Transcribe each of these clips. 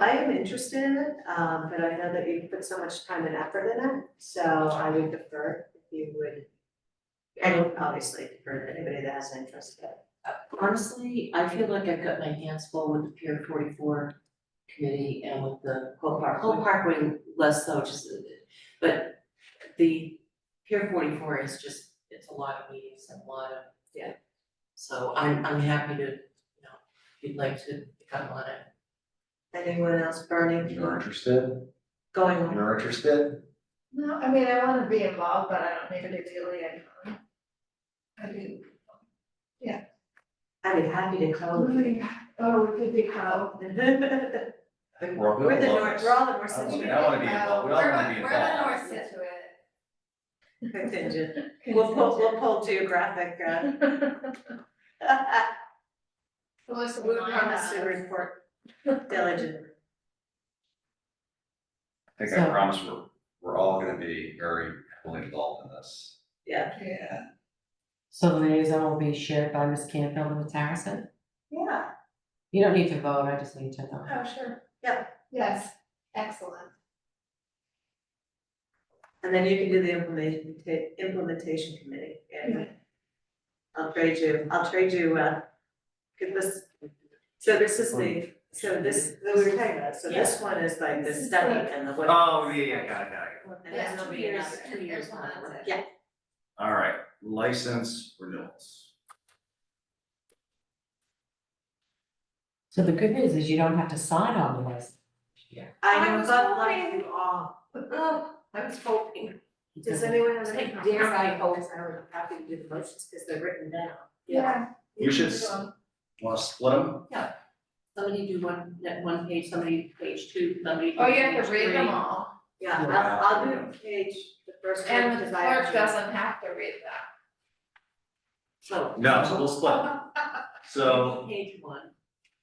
I am interested in it, um, but I know that you put so much time and effort in it, so I would defer if you would. I would obviously defer to anybody that has an interest in it. Honestly, I feel like I've got my hands full with the Pier forty-four committee and with the Cole Park, Cole Parkway less so, just, uh, but the Pier forty-four is just, it's a lot of meetings and a lot of. Yeah. So I'm, I'm happy to, you know, if you'd like to come on it. Anyone else burning You're for interested, going on? you're interested, No, I mean, I wanna be involved, but I don't need to be really involved. I do, I'd be happy to oh, come. we oh, we could be how, We're I think we're all good. the with all north, this. we're all the north Oh, I don't think- Situate I wanna be involved, we all wanna be involved. north Situate. contingent. We'll pull, we'll pull geographic, uh. Melissa, We we promise to report diligently. I think I promise we're, we're all gonna be very heavily involved in this. Yeah, So the liaison will be shared by Ms. Canfield and Ms. Harrison? Yeah. You don't need to vote, I just need to know. oh, sure. Yeah. Yes, excellent. And then you can do the implementation, implementation committee, and uh, I'll trade you, I'll trade you, uh, give this, so this is the, so this, we were talking about, so this one is like the This is study like- and the what. Oh. got it, got it. And then there'll be another. two years on it. Yeah. All right, license renewals. So the good news is you don't have to sign all the lists. I I know, was but like hoping- you all, Oh, I was hoping. does anyone have any Take dare dare I I hope, I don't have to do the motions, because they're written down. We should s- Oh, Wanna split them? Somebody do one, that one page, somebody page two, somebody do Oh, you have page to read them three. all, Yeah, Yeah. I'll, I'll do page, the first one, and the because I have clerk to- doesn't have to read them. So. No, so we'll split 'em. Oh, So, Page one,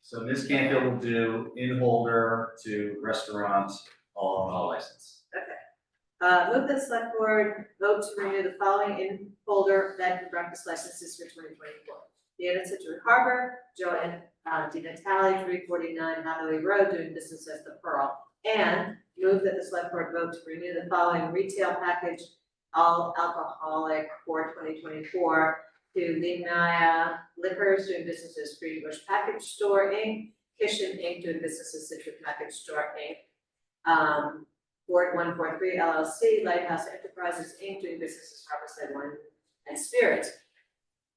so Ms. Canfield will do in holder to restaurant, all all license. Uh, move the select board vote to renew the following in folder bed and breakfast licenses for twenty twenty-four. The Inn at Situate Harbor, Joanne, uh, Di Natale, three forty-nine Hathaway Road, doing business as the Pearl. And move that the select board vote to renew the following retail package, all alcoholic for twenty twenty-four to Limnaya Liquors, doing business as Free Bush Package Store Inc., Kitchen Inc., doing business as Situate Package Store Inc. Um, Ward one four three LLC, Lighthouse Enterprises Inc., doing business as Harborside Wine and Spirits.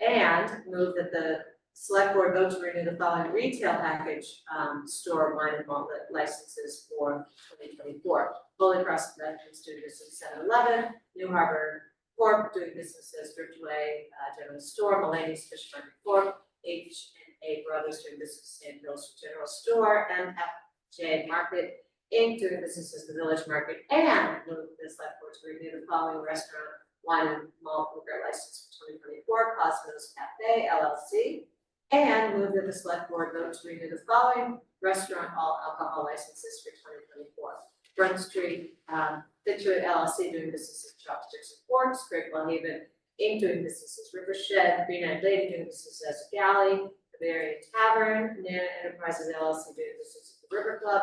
And move that the select board vote to renew the following retail package, um, store wine and malt licenses for twenty twenty-four. Holy Cross Productions doing business at seven eleven, New Harbor Corp. doing business as Driftway, uh, General Store, Mulaney's Fish Market Corp., H and A Brothers doing business in Mills General Store, M F J Market Inc. doing business as the Village Market and move the select board to renew the following restaurant wine and malt liquor license for twenty twenty-four, Cosmos Cafe LLC. And move that the select board vote to renew the following restaurant all alcohol licenses for twenty twenty-four. Front Street, um, Situate LLC doing business as Chopsticks and Forks, Great Haven Inc. doing business as River Shed, Green Eyed Lady doing business as Galley, Bavarian Tavern, Nana Enterprises LLC doing business as the River Club,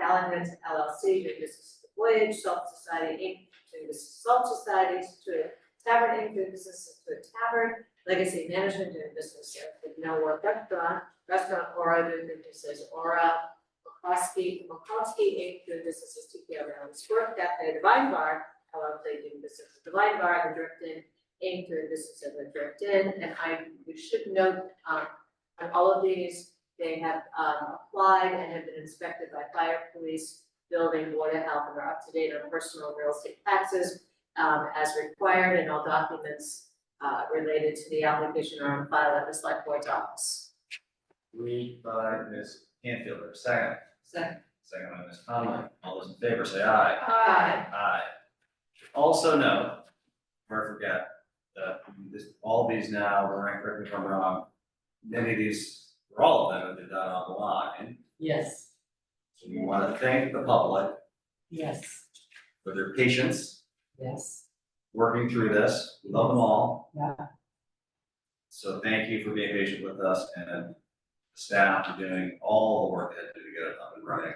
Callahan's LLC, doing business as the Voyage, Salt Society Inc., doing business as Salt Society, Situate Tavern Inc., doing business as Situate Tavern, Legacy Management, doing business as the No Work Restaurant, Restaurant Aura, doing business as Aura, McCoskey, McCoskey Inc., doing business as TPO Round Sport Cafe, Divine Bar, LLC, doing business as Divine Bar, and Drift Inn Inc., doing business as the Drift Inn, and I, you should note, um, on all of these, they have um applied and have been inspected by fire, police, building, water, health, and are up to date on personal and real estate taxes um, as required, and all documents uh related to the application are on file at the select board's office. Read by Ms. Canfield, or second, So, second by Ms. Conley, all those in favor say aye. Aye. Aye. Also note, or I forget, that this, all these now, when I correct me if I'm wrong, many of these, or all of them have been done online. Yes, So we wanna thank the public yes, for their patience, yes. working through this, We love them all. Yeah. So thank you for being patient with us and staff for doing all the work they had to do to get it up and running.